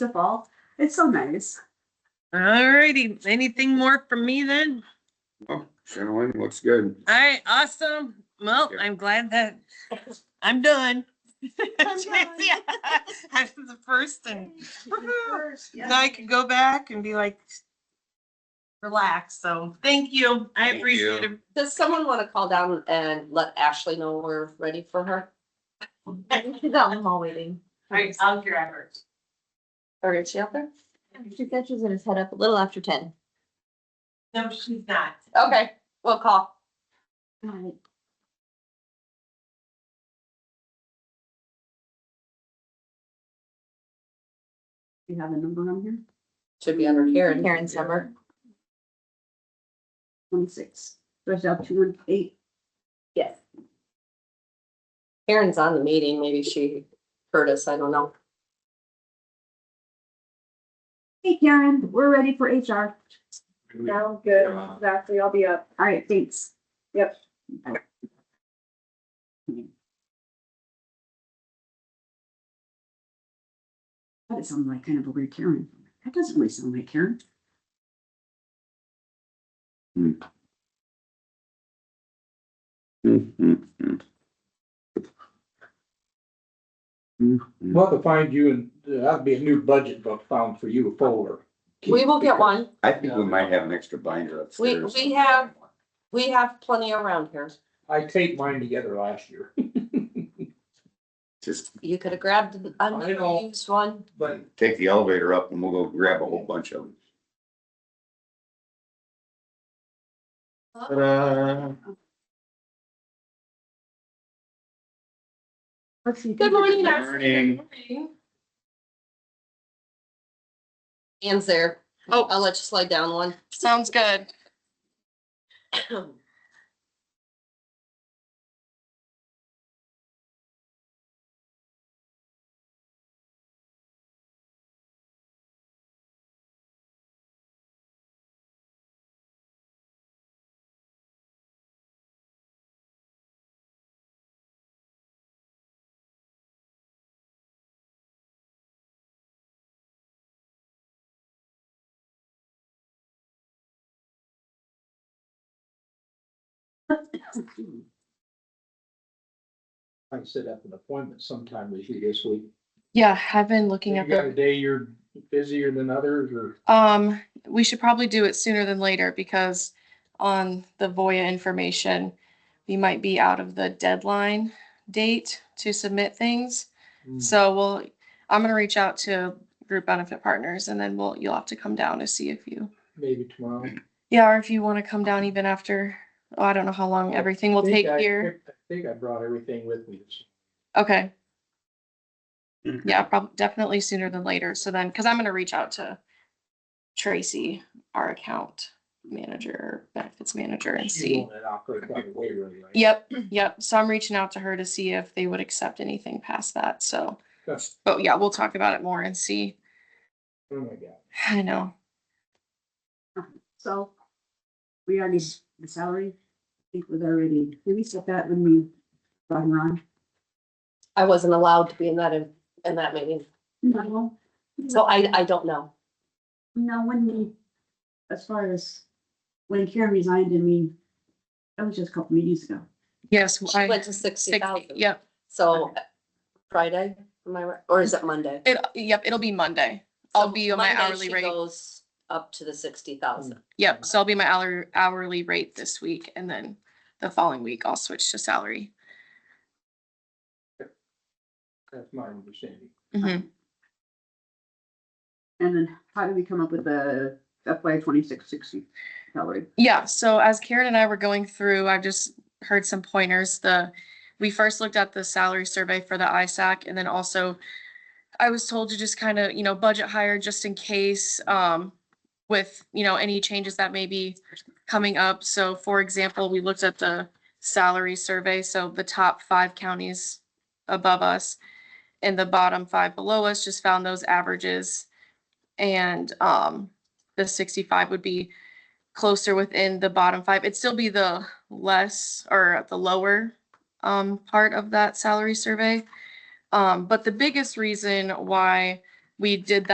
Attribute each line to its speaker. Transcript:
Speaker 1: the fall. It's so nice.
Speaker 2: Alrighty, anything more from me then?
Speaker 3: Oh, Channeling looks good.
Speaker 2: Alright, awesome. Well,
Speaker 3: Yeah.
Speaker 2: I'm glad that I'm done.
Speaker 1: done.
Speaker 2: Yeah, I'm the first and now I can go back and be like relaxed. So thank you. I
Speaker 3: Thank
Speaker 2: appreciate it.
Speaker 4: Does someone want to call down and let Ashley know we're ready for her? I'm all waiting.
Speaker 2: Alright, I'll your efforts.
Speaker 4: Or is she out there? She said she's gonna head up a little after ten.
Speaker 2: No, she's not.
Speaker 4: Okay, we'll call.
Speaker 1: Right. You have a number on here?
Speaker 4: Should be under Karen. Karen's number.
Speaker 1: Twenty-six, there's out two and eight.
Speaker 4: Yes. Karen's on the meeting. Maybe she heard us. I don't know.
Speaker 1: Hey Karen, we're ready for HR.
Speaker 5: Sound good,
Speaker 3: Yeah.
Speaker 5: exactly, I'll be up.
Speaker 1: All right, thanks.
Speaker 5: Yep.
Speaker 1: That sounds like kind of a weird Karen. That doesn't really sound like Karen.
Speaker 6: We'll have to find you and uh, that'd be a new budget book found for you, a folder.
Speaker 4: We will get one.
Speaker 3: I think we might have an extra binder
Speaker 4: We-
Speaker 3: upstairs.
Speaker 4: we have- We have plenty around here.
Speaker 6: I taped mine together last year,
Speaker 3: Just
Speaker 4: You could have grabbed an
Speaker 6: I know.
Speaker 4: unused one.
Speaker 6: but
Speaker 3: take the elevator up and we'll go grab a whole bunch of them. Ta-da.
Speaker 1: Let's see.
Speaker 4: Good morning. Ashley.
Speaker 3: Morning.
Speaker 4: Anne's there.
Speaker 7: Oh.
Speaker 4: I'll let you slide down one.
Speaker 7: Sounds good.
Speaker 6: I can set up an appointment sometime with you this week.
Speaker 7: Yeah, I've been looking
Speaker 6: You
Speaker 7: at
Speaker 6: got a
Speaker 7: the,
Speaker 6: day you're busier than others or?
Speaker 7: um, we should probably do it sooner than later because on the Voya information, we might be out of the deadline date to submit things.
Speaker 6: Hmm.
Speaker 7: So we'll, I'm gonna reach out to group benefit partners and then we'll, you'll have to come down to see if you,
Speaker 6: Maybe tomorrow.
Speaker 7: yeah, or if you want to come down even after, oh, I don't know how long everything will
Speaker 6: I think
Speaker 7: take
Speaker 6: I-
Speaker 7: here.
Speaker 6: I think I brought everything with me.
Speaker 7: Okay,
Speaker 3: Mhm.
Speaker 7: yeah, probably definitely sooner than later. So then, because I'm gonna reach out to Tracy, our account manager, benefits manager, and
Speaker 6: You
Speaker 7: see.
Speaker 6: want it operated by the waiver, right?
Speaker 7: Yep, yep. So I'm reaching out to her to see if they would accept anything past that. So,
Speaker 6: That's-
Speaker 7: but yeah, we'll talk about it more and see.
Speaker 6: Oh my God.
Speaker 7: I know.
Speaker 1: So we already, the salary, I think was already, did we set that when we brought her on?
Speaker 4: I wasn't allowed to be in that, in in that meeting,
Speaker 1: No,
Speaker 4: so I, I don't know.
Speaker 1: no, when we, as far as when Karen resigned and we, that was just a couple meetings ago.
Speaker 7: Yes,
Speaker 4: She
Speaker 7: I,
Speaker 4: went to sixty
Speaker 7: sixty,
Speaker 4: thousand,
Speaker 7: yep,
Speaker 4: so Friday, am I right, or is it Monday?
Speaker 7: it, yep, it'll be Monday. I'll
Speaker 4: So
Speaker 7: be on my
Speaker 4: Monday
Speaker 7: hourly
Speaker 4: she
Speaker 7: rate.
Speaker 4: Goes up to the sixty thousand.
Speaker 7: Yep, so I'll be my hourly, hourly rate this week and then the following week I'll switch to salary.
Speaker 6: That's my understanding.
Speaker 4: Mm-hmm.
Speaker 7: Mhm.
Speaker 1: And then how do we come up with the FY twenty-six sixty salary?
Speaker 7: Yeah, so as Karen and I were going through, I've just heard some pointers. The, we first looked at the salary survey for the ISAC and then also I was told to just kind of, you know, budget higher just in case, um, with, you know, any changes that may be coming up. So for example, we looked at the salary survey, so the top five counties above us and the bottom five below us, just found those averages. And, um, the sixty-five would be closer within the bottom five. It'd still be the less or the lower um, part of that salary survey. Um, but the biggest reason why we did that.